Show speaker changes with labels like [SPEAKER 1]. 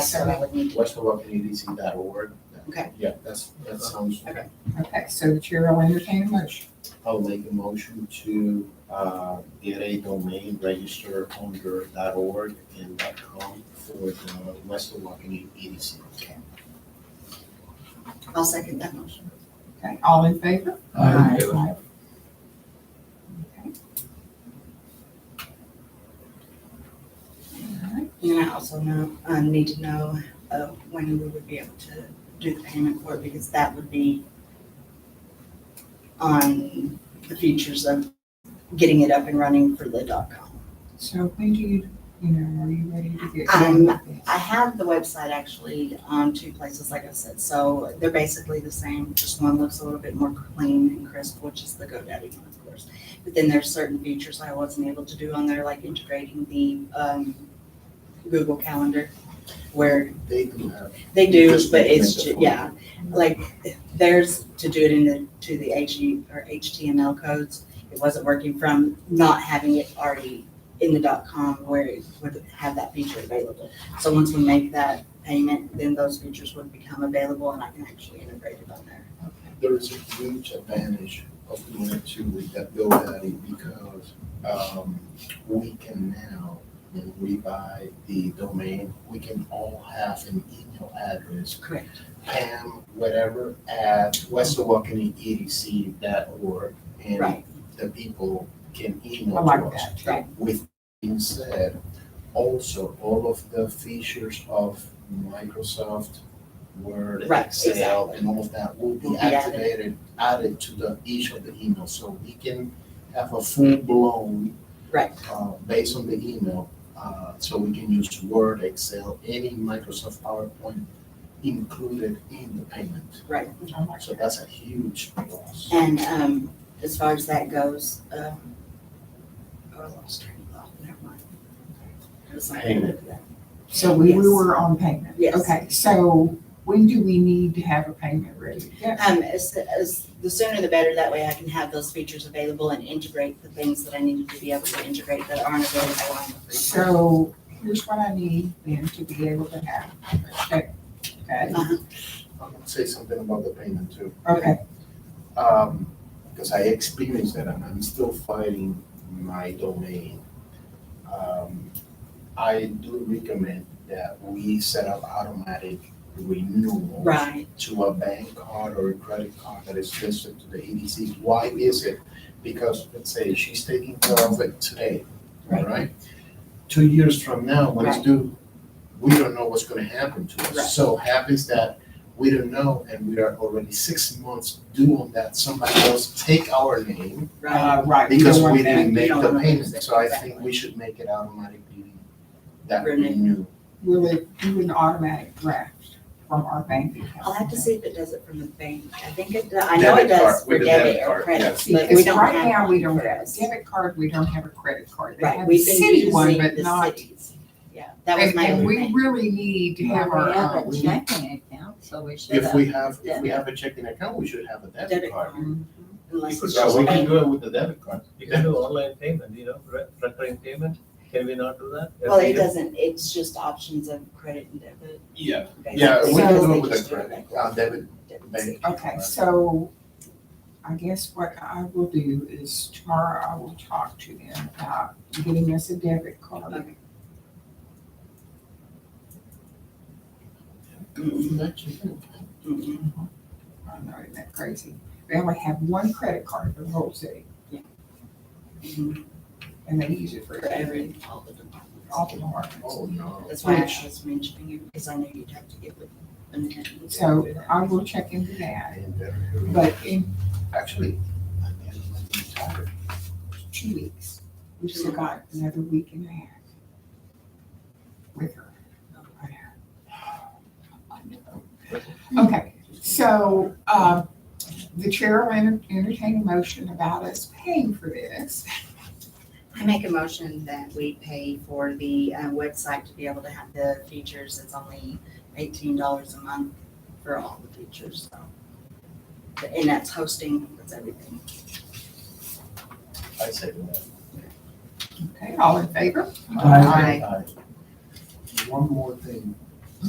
[SPEAKER 1] So I would need to,
[SPEAKER 2] westernwapatc.org.
[SPEAKER 1] Okay.
[SPEAKER 2] Yeah, that's, that sounds,
[SPEAKER 1] Okay. okay, so the chair will entertain a motion.
[SPEAKER 2] I'll make a motion to, uh, get a domain register under .org and .com for the Western Wapanee EDC.
[SPEAKER 3] I'll second that motion.
[SPEAKER 1] Okay, all in favor?
[SPEAKER 4] Aye.
[SPEAKER 1] Okay. All right,
[SPEAKER 3] And then I also know, uh, need to know, uh, when we would be able to do the payment for it, because that would be on the features of getting it up and running for the dot com.
[SPEAKER 1] So when do you, you know, are you ready to get
[SPEAKER 3] Um,
[SPEAKER 1] going with this?
[SPEAKER 3] I have the website actually on two places, like I said, so they're basically the same, just one looks a little bit more clean and crisp, which is the GoDaddy one, of course. But then there's certain features I wasn't able to do on there, like integrating the, um, Google Calendar, where
[SPEAKER 2] They do have,
[SPEAKER 3] They do,
[SPEAKER 2] Just
[SPEAKER 3] but
[SPEAKER 2] make
[SPEAKER 3] it's,
[SPEAKER 2] it
[SPEAKER 3] ju-
[SPEAKER 2] different.
[SPEAKER 3] yeah, like, there's to do it in the, to the HE or HTML codes. It wasn't working from not having it already in the dot com where it would have that feature available. So once we make that payment, then those features would become available and I can actually integrate it on there.
[SPEAKER 2] there is a huge advantage of doing it too with that GoDaddy because, um, we can now, when we buy the domain, we can all have an email address
[SPEAKER 3] Correct.
[SPEAKER 2] Pam, whatever, at westawakaneedc.org. And
[SPEAKER 3] Right.
[SPEAKER 2] the people can
[SPEAKER 1] I
[SPEAKER 2] email to
[SPEAKER 1] like
[SPEAKER 2] us.
[SPEAKER 1] that, right.
[SPEAKER 2] With being said, also all of the features of Microsoft Word,
[SPEAKER 3] Right,
[SPEAKER 2] Excel,
[SPEAKER 3] exactly.
[SPEAKER 2] and all of that will
[SPEAKER 3] Will
[SPEAKER 2] be
[SPEAKER 3] be added.
[SPEAKER 2] activated, added to the, each of the emails. So we can have a full-blown
[SPEAKER 3] Right.
[SPEAKER 2] uh, based on the email. Uh, so we can use Word, Excel, any Microsoft PowerPoint included in the payment.
[SPEAKER 3] Right.
[SPEAKER 1] I like
[SPEAKER 2] So that's a huge plus.
[SPEAKER 3] And, um, as far as that goes, um, oh, I lost train of thought, never mind. It was something
[SPEAKER 2] Payment.
[SPEAKER 3] like that.
[SPEAKER 1] So we
[SPEAKER 3] Yes.
[SPEAKER 1] we were on payment?
[SPEAKER 3] Yes.
[SPEAKER 1] Okay, so when do we need to have a payment ready? Yeah,
[SPEAKER 3] Um, as, as, the sooner the better, that way I can have those features available and integrate the things that I needed to be able to integrate that aren't available on the free.
[SPEAKER 1] So here's what I need then to be able to have. Okay, okay,
[SPEAKER 2] I'm gonna say something about the payment too.
[SPEAKER 1] okay,
[SPEAKER 2] Um, because I experienced that and I'm still fighting my domain. Um, I do recommend that we set up automatic renewals.
[SPEAKER 3] Right,
[SPEAKER 2] to a bank card or a credit card that is listed to the EDC. Why is it? Because let's say she's taking care of it today, all
[SPEAKER 3] Right.
[SPEAKER 2] right? Two years from now, when it's
[SPEAKER 3] Right.
[SPEAKER 2] due, we don't know what's gonna happen to
[SPEAKER 3] Right.
[SPEAKER 2] us. So happens that we don't know and we are already six months due on that. Somebody else take our name
[SPEAKER 3] right.
[SPEAKER 1] uh, right. we
[SPEAKER 2] because
[SPEAKER 1] don't
[SPEAKER 2] we
[SPEAKER 1] want that.
[SPEAKER 2] didn't make
[SPEAKER 3] don't
[SPEAKER 2] the
[SPEAKER 3] want
[SPEAKER 2] payment.
[SPEAKER 3] that.
[SPEAKER 2] So I think
[SPEAKER 3] Exactly.
[SPEAKER 2] we should make it automatically that
[SPEAKER 3] Renew.
[SPEAKER 2] renew.
[SPEAKER 1] Will it do an automatic draft from our bank account?
[SPEAKER 3] I'll have to see if it does it from the bank. I think it, do- I know it
[SPEAKER 2] Debit card,
[SPEAKER 3] does for
[SPEAKER 2] with the
[SPEAKER 3] debit
[SPEAKER 2] debit
[SPEAKER 3] or
[SPEAKER 2] card,
[SPEAKER 3] credit,
[SPEAKER 2] yes.
[SPEAKER 3] but we
[SPEAKER 1] Because
[SPEAKER 3] don't
[SPEAKER 1] right
[SPEAKER 3] have.
[SPEAKER 1] now, we don't
[SPEAKER 3] one for
[SPEAKER 1] have a
[SPEAKER 3] us.
[SPEAKER 1] debit card, we don't have a credit card. They
[SPEAKER 3] Right,
[SPEAKER 1] have
[SPEAKER 3] we've
[SPEAKER 1] a
[SPEAKER 3] been
[SPEAKER 1] city one,
[SPEAKER 3] using
[SPEAKER 1] but
[SPEAKER 3] the
[SPEAKER 1] not-
[SPEAKER 3] cities. Yeah, that was
[SPEAKER 1] and-
[SPEAKER 3] my
[SPEAKER 1] And
[SPEAKER 3] only
[SPEAKER 1] we
[SPEAKER 3] thing.
[SPEAKER 1] really need to have our
[SPEAKER 5] Well,
[SPEAKER 1] own.
[SPEAKER 5] we have a checking account, so we should
[SPEAKER 1] uh,
[SPEAKER 2] If
[SPEAKER 5] have.
[SPEAKER 2] we have, if we have a checking account, we should have a debit
[SPEAKER 3] Debit
[SPEAKER 2] card.
[SPEAKER 3] card,
[SPEAKER 1] Mm-hmm.
[SPEAKER 3] unless it's
[SPEAKER 2] So
[SPEAKER 3] just
[SPEAKER 2] we can
[SPEAKER 3] bank.
[SPEAKER 2] do it with the debit card.
[SPEAKER 4] You can do online payment, you know, re- recurring payment, can we not do that?
[SPEAKER 3] Well, it
[SPEAKER 4] Every-
[SPEAKER 3] doesn't, it's just options of credit and debit.
[SPEAKER 2] Yeah.
[SPEAKER 3] basically,
[SPEAKER 2] Yeah, we can
[SPEAKER 3] because
[SPEAKER 2] do
[SPEAKER 3] they
[SPEAKER 2] it with
[SPEAKER 3] just
[SPEAKER 2] a
[SPEAKER 3] it
[SPEAKER 2] credit,
[SPEAKER 3] back.
[SPEAKER 2] uh, debit,
[SPEAKER 3] Debit.
[SPEAKER 2] bank.
[SPEAKER 1] Okay, so I guess what I will do is tomorrow I will talk to them about getting us a debit card.
[SPEAKER 3] Okay. Mhm.
[SPEAKER 1] I know, isn't that crazy? They only have one credit card for the whole city.
[SPEAKER 3] Yeah.
[SPEAKER 1] And they use it for
[SPEAKER 3] For
[SPEAKER 1] every,
[SPEAKER 3] every, all the departments.
[SPEAKER 1] all the departments.
[SPEAKER 2] Oh, no.
[SPEAKER 3] That's why I was mentioning it, because I know you'd have to get with them. and-
[SPEAKER 1] So I will check into that, but in
[SPEAKER 2] Actually, I am tired.
[SPEAKER 1] two weeks, we've still got another week and a half with her. Okay, so, uh, the chair will enter- entertain a motion about us paying for this.
[SPEAKER 3] I make a motion that we pay for the uh, website to be able to have the features. It's only eighteen dollars a month for all the features, so. But- And that's hosting, that's everything.
[SPEAKER 2] I said that.
[SPEAKER 1] Okay, all in favor?
[SPEAKER 2] Aye. One more thing,